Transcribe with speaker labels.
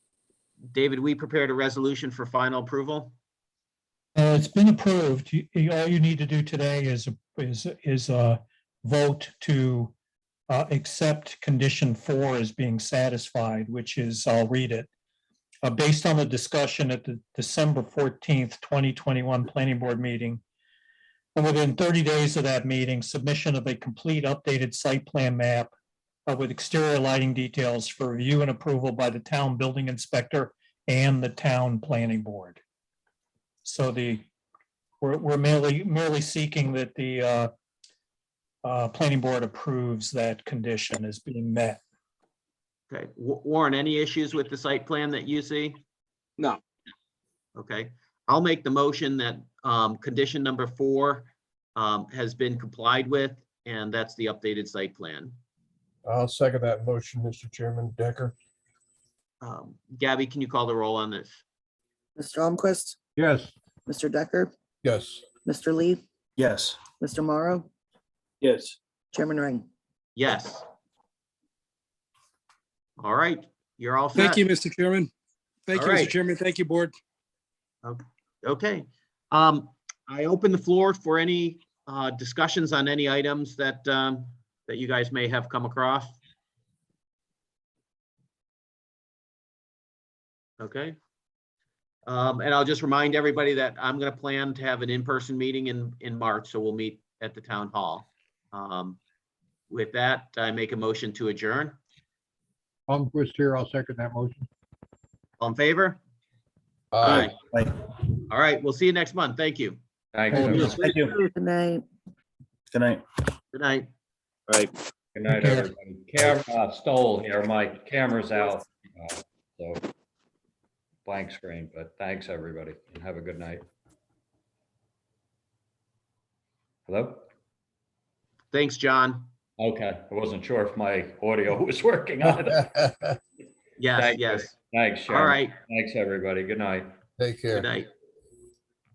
Speaker 1: David, we prepared a resolution for final approval.
Speaker 2: Uh, it's been approved. You- you- All you need to do today is, is, is uh vote to uh, accept condition four as being satisfied, which is, I'll read it. Uh, based on the discussion at the December fourteenth, twenty twenty-one planning board meeting. And within thirty days of that meeting, submission of a complete updated site plan map uh, with exterior lighting details for review and approval by the town building inspector and the town planning board. So the, we're, we're merely, merely seeking that the uh, uh, planning board approves that condition as being met.
Speaker 1: Okay, Wa- Warren, any issues with the site plan that you see?
Speaker 3: No.
Speaker 1: Okay, I'll make the motion that um, condition number four um, has been complied with, and that's the updated site plan.
Speaker 4: I'll second that motion, Mr. Chairman. Decker?
Speaker 1: Um, Gabby, can you call the roll on this?
Speaker 5: Mr. Almquist,
Speaker 4: Yes.
Speaker 5: Mr. Decker,
Speaker 4: Yes.
Speaker 5: Mr. Lee,
Speaker 6: yes,
Speaker 5: Mr. Morrow,
Speaker 3: yes,
Speaker 5: Chairman Ring.
Speaker 1: Yes. All right, you're all set.
Speaker 7: Thank you, Mr. Chairman. Thank
Speaker 1: All
Speaker 7: you, Mr.
Speaker 1: right.
Speaker 7: Chairman. Thank you, Board.
Speaker 1: Okay, um, I open the floor for any, uh, discussions on any items that, um, that you guys may have come across. Okay. Um, and I'll just remind everybody that I'm gonna plan to have an in-person meeting in, in March, so we'll meet at the town hall. Um, with that, I make a motion to adjourn.
Speaker 4: Palmquist here. I'll second that motion.
Speaker 1: All in favor?
Speaker 4: Aye.
Speaker 6: Aye.
Speaker 1: All right, we'll see you next month. Thank you.
Speaker 8: Thank
Speaker 2: Oh,
Speaker 8: you.
Speaker 2: yes.
Speaker 6: thank you,
Speaker 5: Good night.
Speaker 6: good night.
Speaker 1: Good night.
Speaker 8: Good night,
Speaker 2: Yeah.
Speaker 8: everybody. Camera uh, stole here. My camera's out. uh, So blank screen, but thanks, everybody, and have a good night. Hello?
Speaker 1: Thanks, John.
Speaker 8: Okay, I wasn't sure if my audio was working either.
Speaker 4: Aye.
Speaker 1: Yes,
Speaker 8: Thank you.
Speaker 1: yes.
Speaker 8: Thanks,
Speaker 1: All
Speaker 8: Sharon.
Speaker 1: right.
Speaker 8: Thanks, everybody. Good night.
Speaker 4: Take care.
Speaker 1: Good night.